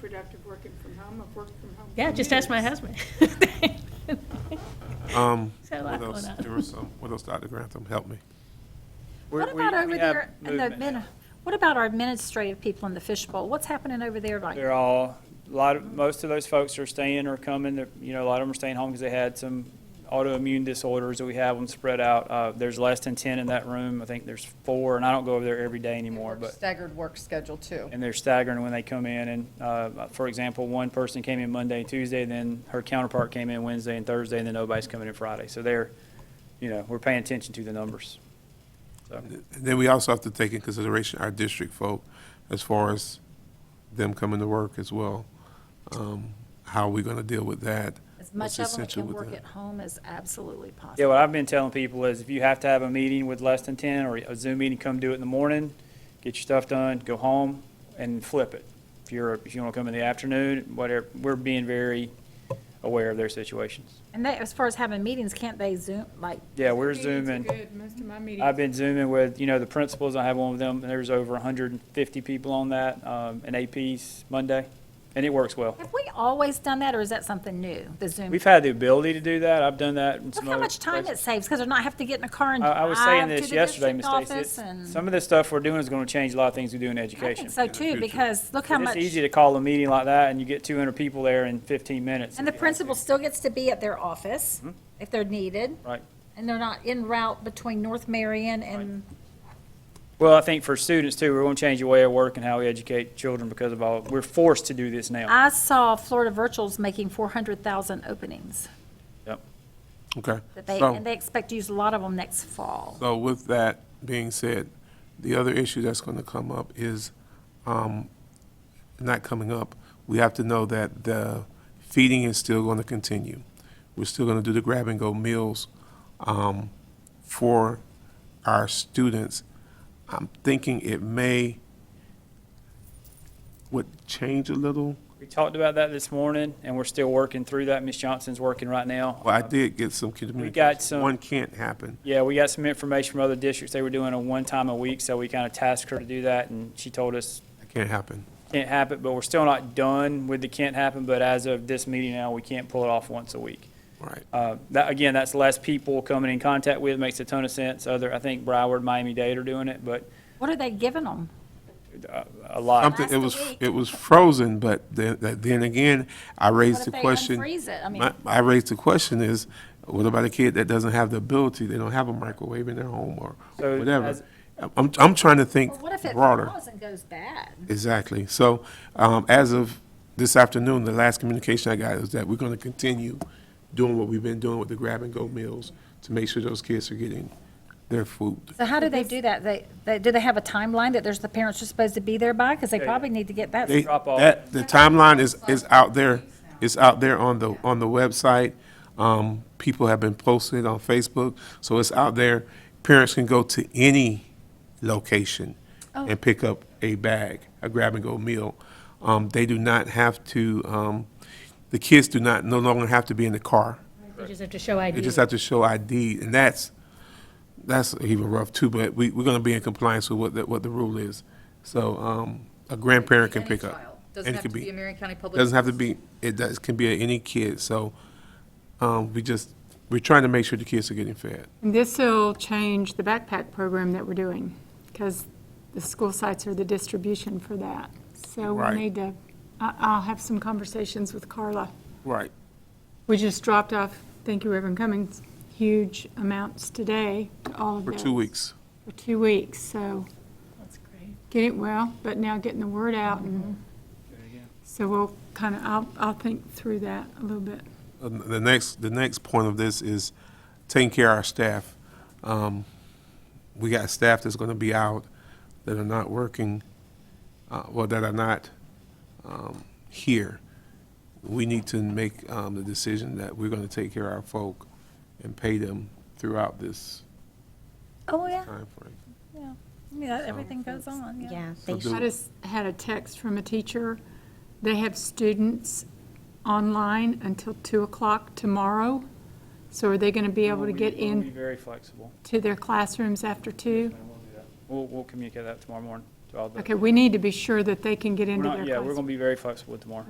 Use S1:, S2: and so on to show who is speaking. S1: productive working from home, I've worked from home.
S2: Yeah,
S1: for
S2: just ask my
S1: years.
S2: husband.
S3: Um,
S2: So a lot
S3: what else?
S2: going on.
S3: There was some, what else, Dr. Grantham, help me.
S4: We're-
S5: What
S4: we-
S5: about
S4: we
S5: over
S4: have
S5: there, in the
S4: movement
S5: admin-
S4: now.
S5: what about our administrative people in the fishbowl? What's happening over there right
S4: They're all, a lot of, most of those folks are staying or coming, they're, you know, a lot of them are staying home because they had some autoimmune disorders, that we have them spread out. Uh, there's less than ten in that room, I think there's four, and I don't go over there every day anymore, but.
S6: Staggered work schedule too.
S4: and they're staggering when they come in. And uh, for example, one person came in Monday, Tuesday, then her counterpart came in Wednesday and Thursday, and then nobody's coming in Friday. So they're, you know, we're paying attention to the numbers. So
S3: And then we also have to take in consideration our district folk as far as them coming to work as well. Um, How are we going to deal with that?
S5: As
S3: It's
S5: much of them that
S3: essential
S5: can
S3: with
S5: work
S3: that.
S5: at home as absolutely possible.
S4: yeah, what I've been telling people is if you have to have a meeting with less than ten or a Zoom meeting, come do it in the morning, get your stuff done, go home, and flip it. If you're if you want to come in the afternoon, whatever. We're being very aware of their situations.
S5: And they, as far as having meetings, can't they Zoom, like,
S4: Yeah, we're
S1: Meetings are
S4: zooming.
S1: good. Most of my meetings.
S4: I've been zooming with, you know, the principals, I have one with them, and there's over hundred and fifty people on that, um, and APs Monday, and it works well.
S5: have we always done that, or is that something new, the Zoom?
S4: We've had the ability to do that, I've done that in
S5: Look
S4: some
S5: how
S4: other
S5: much time it
S4: places.
S5: saves, because they're not having to get in a car and
S4: I, I was saying
S5: drive to
S4: this
S5: the
S4: yesterday,
S5: district
S4: Ms. Stacy, it's-
S5: office and.
S4: some of this stuff we're doing is gonna change a lot of things we do in
S5: I
S4: education.
S5: think so
S3: in the
S5: too,
S3: future.
S5: because look how
S4: And
S5: much,
S4: It's easy to call a meeting like that, and you get two hundred people there in fifteen minutes.
S5: and the principal still gets to be at their office
S4: Mm-hmm.
S5: if they're needed,
S4: Right.
S5: and they're not en route between North Marion and
S4: Well, I think for students too, we're gonna change the way of work and how we educate children because of all, we're forced to do this now.
S5: I saw Florida Virtual's making 400,000 openings,
S4: Yep.
S3: Okay.
S5: that they,
S3: So-
S5: and they expect to use a lot of them next fall.
S3: So with that being said, the other issue that's going to come up is, um, not coming up, we have to know that the feeding is still going to continue. We're still going to do the grab-and-go meals um, for our students. I'm thinking it may, would change a little.
S4: We talked about that this morning, and we're still working through that. Ms. Johnson's working right now.
S3: Well, I did get some communication.
S4: some-
S3: One can't happen.
S4: Yeah, we got some information from other districts. They were doing a one time a week, so we kind of tasked her to do that, and she told us
S3: It can't happen.
S4: can't happen, but we're still not done with the can't happen, but as of this meeting now, we can't pull it off once a week.
S3: Right.
S4: Uh, That, again, that's less people coming in contact with, makes a ton of sense. Other, I think Broward, Miami-Dade are doing it, but
S5: What are they giving them?
S4: uh, a lot.
S3: Something, it was,
S5: Last week.
S3: it was frozen, but then, that- then again, I raised
S5: What
S3: the
S5: if they
S3: question.
S5: unfreeze it? I mean-
S3: My- I raised the question is, what about a kid that doesn't have the ability, they don't have a microwave in their home or
S4: So
S3: whatever?
S4: as-
S3: I'm, I'm trying to think
S5: Well, what if it
S3: broader.
S5: falls and goes bad?
S3: Exactly. So, um, as of this afternoon, the last communication I got is that we're gonna continue doing what we've been doing with the grab-and-go meals to make sure those kids are getting their food.
S5: So how do they do that? They, they, do they have a timeline that there's, the parents are supposed to be there by? Because they
S4: Yeah,
S5: probably need to get that.
S3: They-
S4: Drop off.
S3: that- the timeline is, is out there, it's out there on the, on the website. Um, people have been posting it on Facebook, so it's out there. Parents can go to any location
S4: Oh.
S3: and pick up a bag, a grab-and-go meal. Um, they do not have to, um, the kids do not, no longer have to be in the car.
S2: You just have to show ID.
S3: They just have to show ID, and that's, that's even rough too, but we, we're gonna be in compliance with what, the what the rule is. So, um, a grandparent can
S6: Any
S3: pick up.
S6: child.
S3: and
S6: Doesn't
S3: it
S6: have
S3: could
S6: to be a Marion County Public.
S3: Doesn't have to be, it does, can be any kid, so, um, we just, we're trying to make sure the kids are getting fed.
S7: And This will change the backpack program that we're doing, because the school sites are the distribution for that. So we'll
S3: Right.
S7: need to, I- I'll have some conversations with Carla.
S3: Right.
S7: We just dropped off, thank you, Reverend Cummings, huge amounts today to all of
S3: For
S7: those.
S3: two weeks.
S7: For two weeks, so. That's great. Get it well, but now getting the word out, and
S1: Mm-hmm.
S7: so we'll kind of, I'll, I'll think through that a little bit.
S3: Um, The next, the next point of this is taking care of our staff. Um, We got staff that's gonna be out, that are not working, uh, well, that are not, um, here. We need to make, um, the decision that we're gonna take care of our folk and pay them throughout this
S5: Oh, yeah,
S3: timeframe.
S5: yeah, everything goes on, yeah.
S8: Yeah,
S3: So
S8: they
S3: do-
S7: I just had a text from a teacher. They have students online until 2 o'clock tomorrow. So are they going to be able to get
S4: We'll be
S7: in
S4: very flexible.
S7: to their classrooms after 2?
S4: We'll, we'll communicate that tomorrow morning. So all the.
S7: Okay, we need to be sure that they can get
S4: we're
S7: into
S4: not-
S7: their
S4: Yeah, we're
S7: classroom.
S4: gonna be very flexible tomorrow.